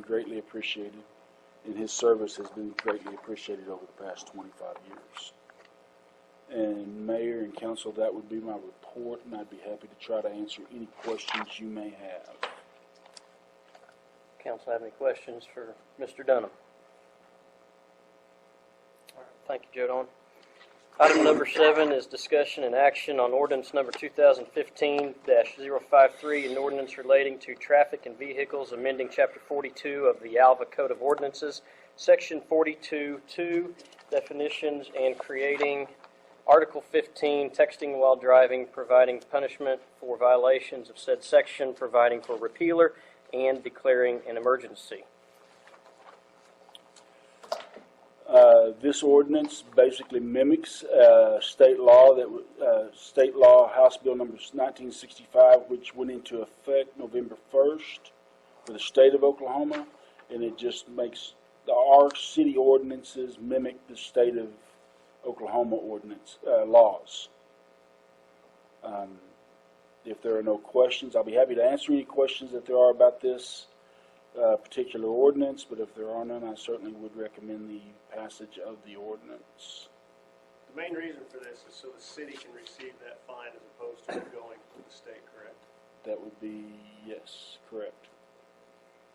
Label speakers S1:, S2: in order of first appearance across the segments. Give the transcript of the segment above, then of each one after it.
S1: greatly appreciated, and his service has been greatly appreciated over the past 25 years. And Mayor and Council, that would be my report, and I'd be happy to try to answer any questions you may have.
S2: Council have any questions for Mr. Dunham? All right, Thank you, Joe Don. Item number seven is discussion and action on ordinance number 2015-053, an ordinance relating to traffic and vehicles, amending Chapter 42 of the Alva Code of Ordinances, Section 42-2, definitions, and creating Article 15, texting while driving, providing punishment for violations of said section, providing for repealer, and declaring an emergency.
S1: Uh, This ordinance basically mimics uh, state law that, w- uh, state law, House Bill number 1965, which went into effect November 1st for the state of Oklahoma, and it just makes, the- our city ordinances mimic the state of Oklahoma ordinance, uh, laws. Um, If there are no questions, I'll be happy to answer any questions that there are about this uh, particular ordinance, but if there are none, I certainly would recommend the passage of the ordinance.
S3: The main reason for this is so the city can receive that fine as opposed to it going to the state, correct?
S1: That would be, yes, correct.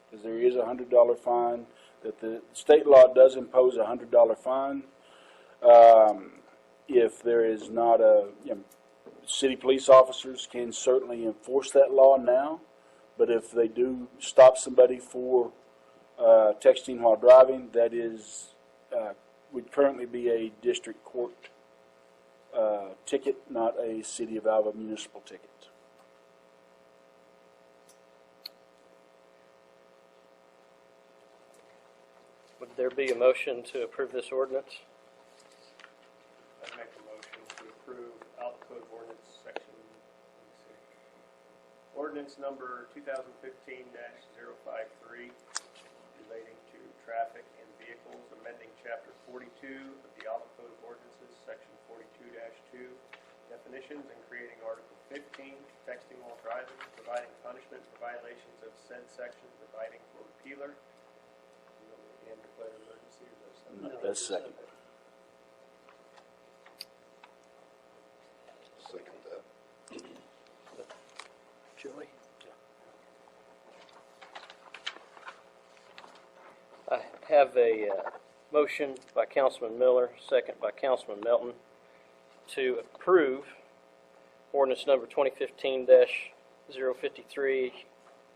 S1: Because there is a hundred dollar fine, that the state law does impose a hundred dollar fine. Um, if there is not a, you know, city police officers can certainly enforce that law now. But if they do stop somebody for, uh, texting while driving, that is, uh, would currently be a district court, uh, ticket, not a city of Alva municipal ticket.
S2: Would there be a motion to approve this ordinance?
S3: I'd make a motion to approve Alva Code of Ordinance Section, let me see. Ordinance number 2015-053 relating to traffic and vehicles, amending Chapter 42 of the Alva Code of Ordinances, Section 42-2, definitions and creating Article 15, texting while driving, providing punishment for violations of said section, providing for repealer, and declare an emergency. or is that
S1: No,
S3: something?
S1: that's second.
S4: Second that.
S2: Julie? I have a uh, motion by Councilman Miller, second by Councilman Melton, to approve ordinance number 2015-053,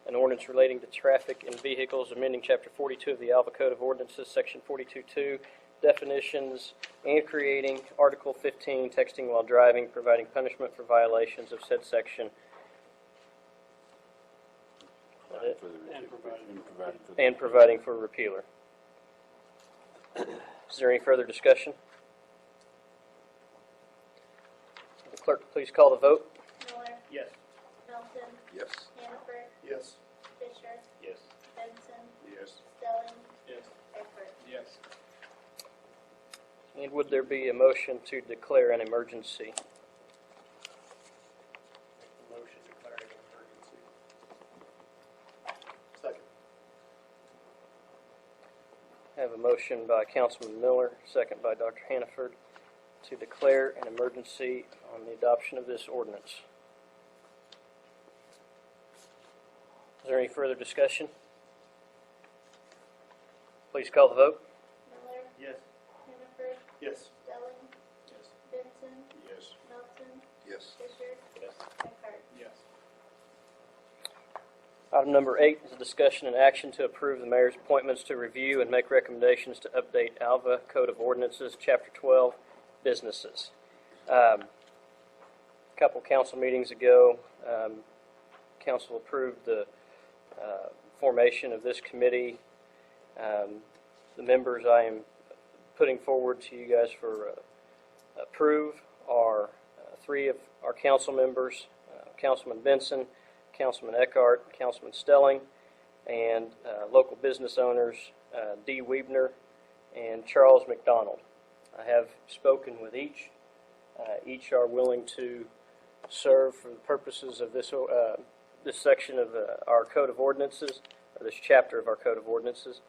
S2: an ordinance relating to traffic and vehicles, amending Chapter 42 of the Alva Code of Ordinances, Section 42-2, definitions, and creating Article 15, texting while driving, providing punishment for violations of said section,
S1: Provided for the-
S3: And provided-
S1: and provided for the-
S2: and providing for a repealer. Is there any further discussion? Will The Clerk, please call the vote.
S5: Miller,
S3: Yes.
S5: Melton,
S4: Yes.
S5: Hannaford,
S3: Yes.
S5: Fisher,
S3: Yes.
S5: Benson,
S4: Yes.
S5: Stelling,
S3: Yes.
S5: Eckert.
S3: Yes.
S2: And would there be a motion to declare an emergency?
S3: Make the motion declaring an emergency. Second.
S2: I have a motion by Councilman Miller, second by Dr. Hannaford, to declare an emergency on the adoption of this ordinance. Is there any further discussion? Please call the vote.
S5: Miller,
S3: Yes.
S5: Hannaford,
S3: Yes.
S5: Stelling,
S3: Yes.
S5: Benson,
S4: Yes.
S5: Melton,
S4: Yes.
S5: Fisher,
S3: Yes.
S5: Eckhart.
S3: Yes.
S2: Item number eight is a discussion and action to approve the mayor's appointments to review and make recommendations to update Alva Code of Ordinances, Chapter 12, Businesses. Um, A Couple council meetings ago, um, council approved the uh, formation of this committee. Um, The members I am putting forward to you guys for uh, approve are uh, three of our council members, uh, Councilman Benson, Councilman Eckhart, Councilman Stelling, and uh, local business owners uh, Dee Weebner and Charles McDonald. I have spoken with each. Uh, Each are willing to serve for the purposes of this, uh, this section of uh, our code of ordinances, or this chapter of our code of ordinances.